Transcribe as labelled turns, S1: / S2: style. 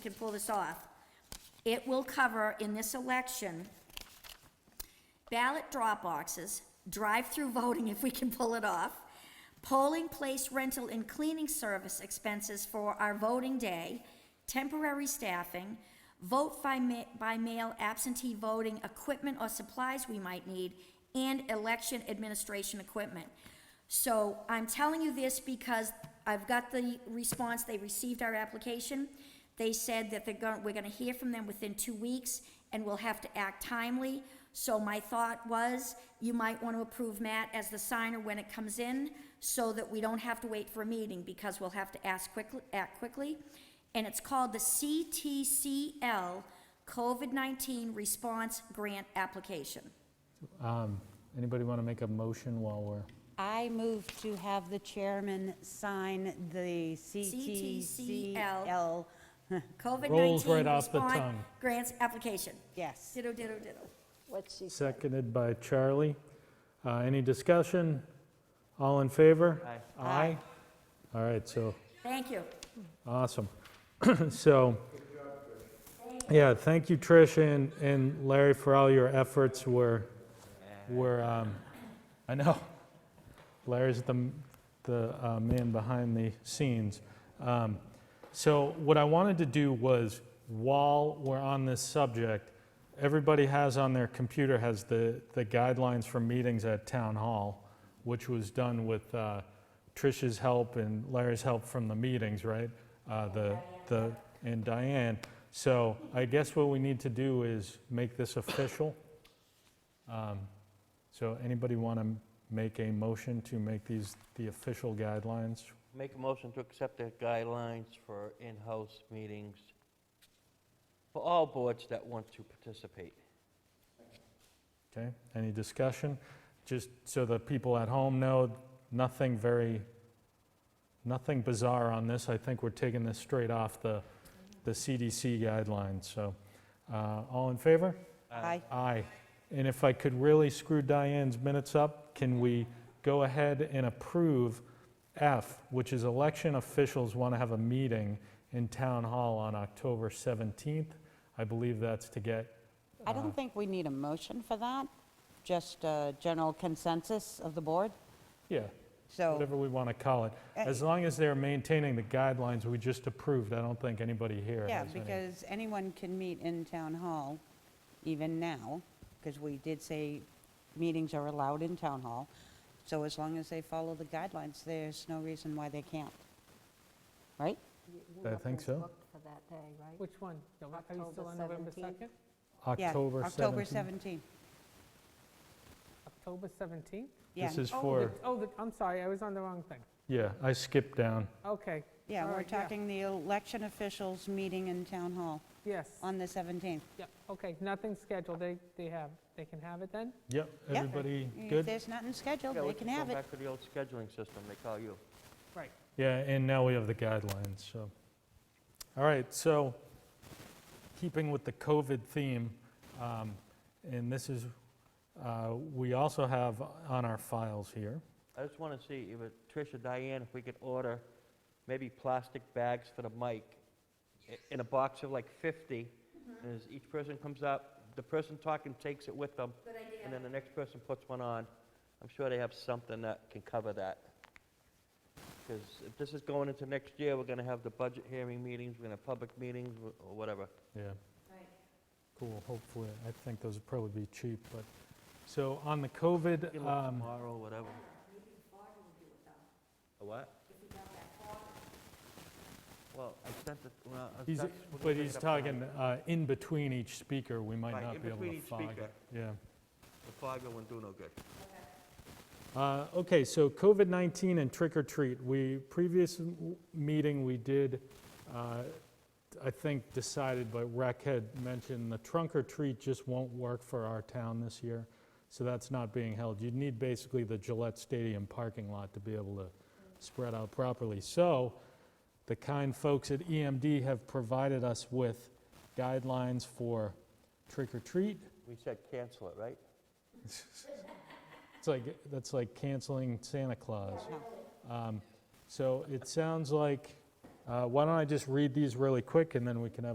S1: can pull this off, it will cover in this election ballot drop boxes, drive-through voting if we can pull it off, polling place rental and cleaning service expenses for our voting day, temporary staffing, vote by ma- by mail absentee voting equipment or supplies we might need, and election administration equipment. So I'm telling you this because I've got the response, they received our application. They said that they're going, we're gonna hear from them within two weeks, and we'll have to act timely. So my thought was, you might want to approve Matt as the signer when it comes in, so that we don't have to wait for a meeting, because we'll have to ask quickly, act quickly. And it's called the CTCL COVID-19 Response Grant Application.
S2: Um, Anybody want to make a motion while we're,
S3: I move to have the chairman sign the CTCL.
S1: COVID-19
S2: Rolls right off the
S1: Response
S2: tongue.
S1: Grants Application.
S3: Yes.
S1: Ditto, ditto, ditto.
S4: What's she say?
S2: seconded by Charlie? Uh, Any discussion? All in favor? Aye. Aye? All right, so,
S1: Thank you.
S2: awesome. So, yeah, thank you, Trish and and Larry, for all your efforts. We're, we're, um, I know, Larry's the the uh, man behind the scenes. Um, So what I wanted to do was, while we're on this subject, everybody has on their computer has the, the guidelines for meetings at town hall, which was done with uh, Trish's help and Larry's help from the meetings, right? Uh, the the and Diane. So I guess what we need to do is make this official. Um, so anybody want to make a motion to make these the official guidelines?
S5: Make a motion to accept the guidelines for in-house meetings for all boards that want to participate.
S2: Okay, any discussion? Just so the people at home know, nothing very, nothing bizarre on this. I think we're taking this straight off the, the CDC guidelines, so. uh, All in favor?
S3: Aye.
S2: Aye. And if I could really screw Diane's minutes up, can we go ahead and approve F, which is election officials want to have a meeting in Town Hall on October 17th? I believe that's to get uh,
S3: I don't think we need a motion for that, just a general consensus of the board.
S2: Yeah.
S3: So- Uh,
S2: Whatever we want to call it. As long as they're maintaining the guidelines we just approved, I don't think anybody here
S3: Yeah,
S2: has any.
S3: because anyone can meet in town hall, even now, because we did say meetings are allowed in town hall. So as long as they follow the guidelines, there's no reason why they can't. Right?
S2: I think so.
S4: Booked for that day, right?
S6: Which one? No, Are you still
S4: October
S6: on November
S4: 17th?
S6: 2nd?
S3: Yeah,
S2: October 17th.
S3: October 17th,
S6: October 17th?
S3: yeah.
S2: This is
S6: Oh,
S2: for,
S6: the- Oh, the- I'm sorry, I was on the wrong thing.
S2: yeah, I skipped down.
S6: Okay.
S3: Yeah,
S6: all
S3: we're
S6: right, yeah,
S3: talking the election officials meeting in town hall
S6: Yes,
S3: on the 17th.
S6: yeah, okay, nothing scheduled, they, they have, they can have it then?
S2: Yep,
S3: Yeah.
S2: everybody
S3: If
S2: good?
S3: there's nothing scheduled,
S5: Yeah,
S3: they
S5: we
S3: can have
S5: Go
S3: it.
S5: back to the old scheduling system, they call you.
S6: Right.
S2: Yeah, and now we have the guidelines, so. All right, so keeping with the COVID theme, um, and this is, uh, we also have on our files here.
S5: I just want to see, if it- Trish or Diane, if we could order maybe plastic bags for the mic i- in a box of like 50, and as each person comes up, the person talking takes it with them. Good idea. And then the next person puts one on. I'm sure they have something that can cover that. Because if this is going into next year, we're going to have the budget hearing meetings, we're going to have public meetings, wh- or whatever.
S2: Yeah. Cool, hopefully, I think those would probably be cheap, but, so on the COVID,
S5: Get 'em
S2: um,
S5: Tomorrow, whatever. A what? Well, I sent it, well, I
S2: he's,
S5: sent- we're gonna
S2: but
S5: pick
S2: he's
S5: it up tomorrow.
S2: talking uh, in between each speaker, we might
S5: Right,
S2: not
S5: in
S2: be able
S5: between
S2: to
S5: each
S2: fog
S5: speaker.
S2: it. Yeah.
S5: The fog won't do no good.
S2: Uh, Okay, so COVID-19 and trick or treat. We, previous m- meeting, we did, uh, I think, decided, but Rec had mentioned the trunk or treat just won't work for our town this year, so that's not being held. You'd need basically the Gillette Stadium parking lot to be able to spread out properly. So the kind folks at EMD have provided us with guidelines for trick or treat.
S5: We said cancel it, right?
S2: It's like, that's like canceling Santa Claus. Um, So it sounds like, uh, why don't I just read these really quick, and then we can have